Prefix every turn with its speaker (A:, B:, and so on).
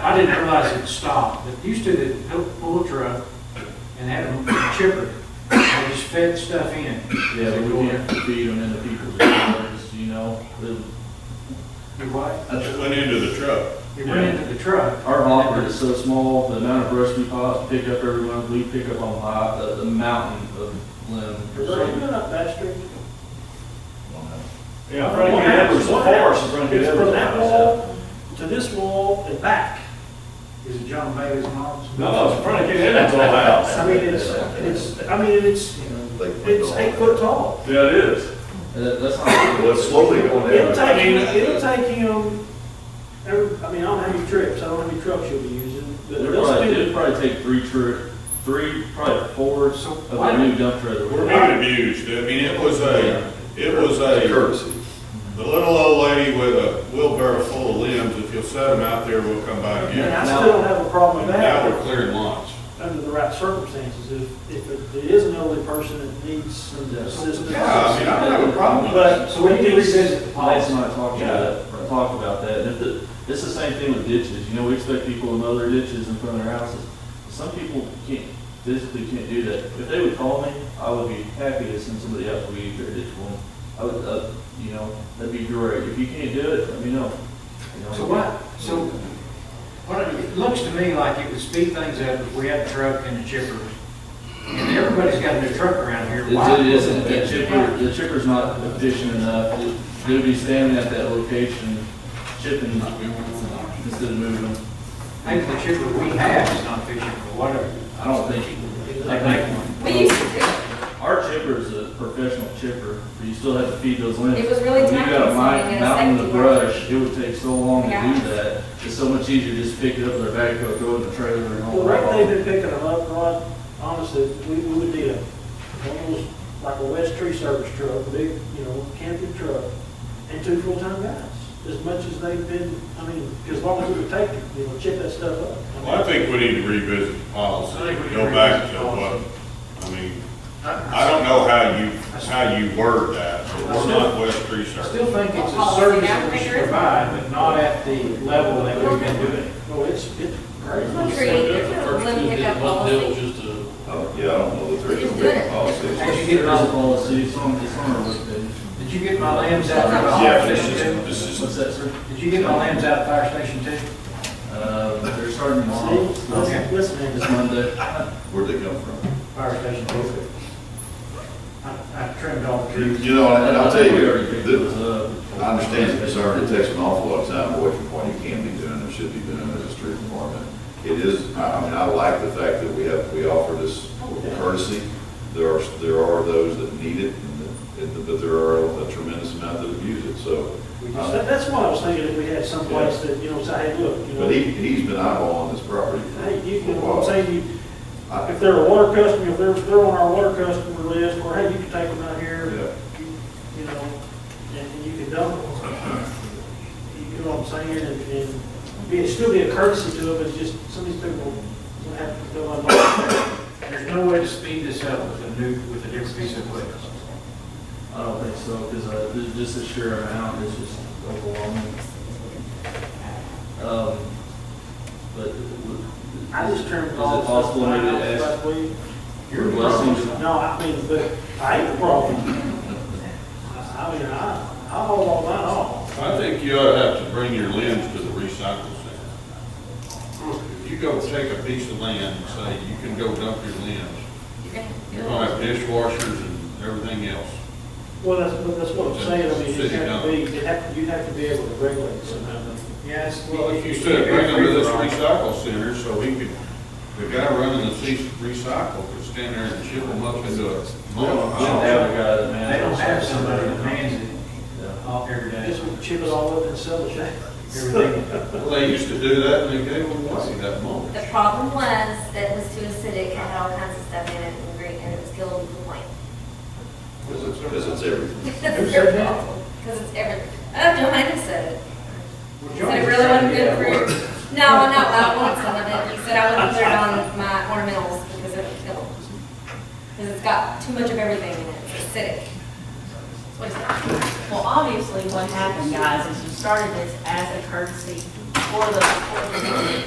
A: I didn't realize it stopped, but used to they built pull a truck and had a chipper, they just fed stuff in.
B: Yeah, but we can't feed them into people's yards, you know?
A: You what?
C: It went into the truck.
A: You went into the truck,
B: Our hopper is so small, the amount of brush we pop, pick up every one, we pick up on high, the, the mountain of limb.
D: Does that even up that street?
E: Yeah,
D: Right,
E: Frankie
D: yeah,
E: Evers, the
D: one
E: forest
D: house.
E: is Frankie
D: It's from
E: Evers'
D: that
E: house.
D: wall to this wall and back.
A: is it John Bailey's mom's?
E: No, it's Frankie Evers' old house.
D: I mean, it's, it's, I mean, it's, it's eight foot tall.
E: Yeah, it is.
B: That, that's not.
C: Well, it's slowly going
D: It'll
C: down.
D: take, you- it'll take him, every- I mean, I don't have any trips, I don't have any trucks you'll be using, but
B: It'll
D: they'll
B: probably, it'll
D: spend,
B: probably take three trip, three, probably four of
A: So
B: the
A: why-
B: new dump trailer.
C: We're not abused. I mean, it was a, it was a. Courtesy. The little old lady with a wheelbarrow full of limbs, if you'll set them out there, we'll come by
D: and
C: again.
D: I still don't have a problem
C: And
D: with
C: Now we're
D: that,
C: clearing lots.
D: under the right circumstances, if, if it- it is an elderly person that needs some assistance.
C: Yeah, I mean, I don't have a problem with it.
D: But,
A: So we need to revisit the
B: Lance
A: policy.
B: and I talked about, that- talked about that, and if the, it's the same thing with ditches, you know, we expect people to mow their ditches in front of their houses. Some people can't, physically can't do that, if they would call me, I would be happy to send somebody out to weed their ditch for them. I would, uh, you know, that'd be great, if you can't do it, let me know. You know?
A: So what, so, what, it- it looks to me like it would speed things up if we had a truck and a chipper. And everybody's got a new truck around here. Why-
B: It it isn't, the chipper, the chipper's not efficient enough, It- they'd be standing at that location, chipping, instead of moving them.
A: Maybe the chipper we have is not efficient or whatever.
B: I don't think, I think
F: We used to do it.
B: Our chipper is a professional chipper, but you still have to feed those limbs.
F: It was really
B: If you got a
F: time-consuming
B: mi-
F: and a
B: mountain of
F: safety
B: brush, it would take so long to
F: Yeah.
B: do that. It's so much easier to just pick it up with a backhoe, throw it in the trailer and
D: the
B: haul it
D: rate
B: off.
D: they've been picking them up, Rod, honestly, we, we would need a, one of those, like a West Tree Service truck, big, you know, camping truck, and two full-time guys, as much as they've been, I mean, as long as it would take, you know, check that stuff up. I mean,
C: Well, I think we need to revisit the policy,
A: I think we need to
C: go back to
A: revisit the
C: what,
A: policy.
C: I mean, I don't know how you, how you word that, but we're not West Tree
A: I
C: Service.
A: still think it's a service that we should provide, but not at the level that we've been doing.
D: No, it's, it's great.
F: Create a limb hiccup policy.
G: Oh,
C: Yeah, I don't know that
F: Just do it.
A: As you
B: There
A: get
B: is a
A: my,
B: policy, it's on, it's on our webpage.
A: did you get my lambs out of the fire
C: Yeah, but this
A: station
C: is, this is,
B: What's that, sir?
A: too? Did you get my lambs out of the fire station too?
B: Uh, they're starting tomorrow.
D: See,
B: It's-
D: listen, listen, man,
B: It's Monday.
G: Where'd they come from?
A: Fire station too. I, I trimmed all the trees.
G: You know, and I'll tell
B: think uh, we
G: you,
B: already picked
G: the-
B: those up.
G: I understand the concern, it takes an awful lot of time away from what you can be doing and should be doing as a street department. It is, I I mean, I like the fact that we have, we offer this courtesy. There are, there are those that need it, and the- and the- but there are a tremendous amount that abuse it, so.
D: we just-
G: uh,
D: that- That's why I was thinking if we had someplace that, you know, say, hey, look, you know,
G: But he, he's been eyeballing this property for
D: hey, you
G: a
D: can,
G: while.
D: say you,
G: I-
D: If they're a water customer, if they're, if they're on our water customer list, or hey, you can take them out here,
G: Yeah.
D: you you know, and and you can dump them. You know what I'm saying, and, and be, it'd still be a courtesy to them, it's just, some of these people will have to go on.
A: There's no way to speed this up with a new, with a different piece of equipment.
B: I don't think so, because uh, there's just a sheer amount is just overwhelming. Um, but. w-
D: I just turned
B: Is
D: it
B: it
D: off.
B: possible maybe to ask
D: Last week.
B: your blessings?
D: No, I mean, but I ain't the problem. I I mean, I, I hold all mine off.
C: I think you ought to have to bring your limbs to the recycle center. If you go take a piece of land and say, you can go dump your limbs,
F: You can do
C: you're
F: it.
C: gonna have dishwashers and everything else.
D: Well, that's, but that's what I'm saying, I mean, you have to be, you have, you have to be able to regulate somehow.
A: Yes.
C: Well, if you said, bring them to this recycle center, so we could, the guy running the ce- recycle could stand there and chip them up into a.
B: We don't we don't have a guy that
A: They don't
B: manages.
A: have somebody that mans
B: Yeah.
A: it off every day,
D: Just would chip it all up and sell it.
A: everything.
C: Well, they used to do that and they gave them away that moment.
F: The problem was that it was too acidic, it had all kinds of stuff in it, and green, and it was killed with the point.
G: Because it's everything.
A: Who said that?
F: Because it's everything. Oh, Johanna said it.
A: Well, John
F: Said it
A: was
F: really
A: trying
F: wasn't
A: to
F: good
A: get
F: for
A: at
F: you.
A: work.
F: No, no, I don't want some of it. He said I wouldn't put it on my ornamentals because it would kill them. Because it's got too much of everything in it, it's acidic. That's what he said.
H: Well, obviously, what happened, guys, is you started this as a courtesy for the, for the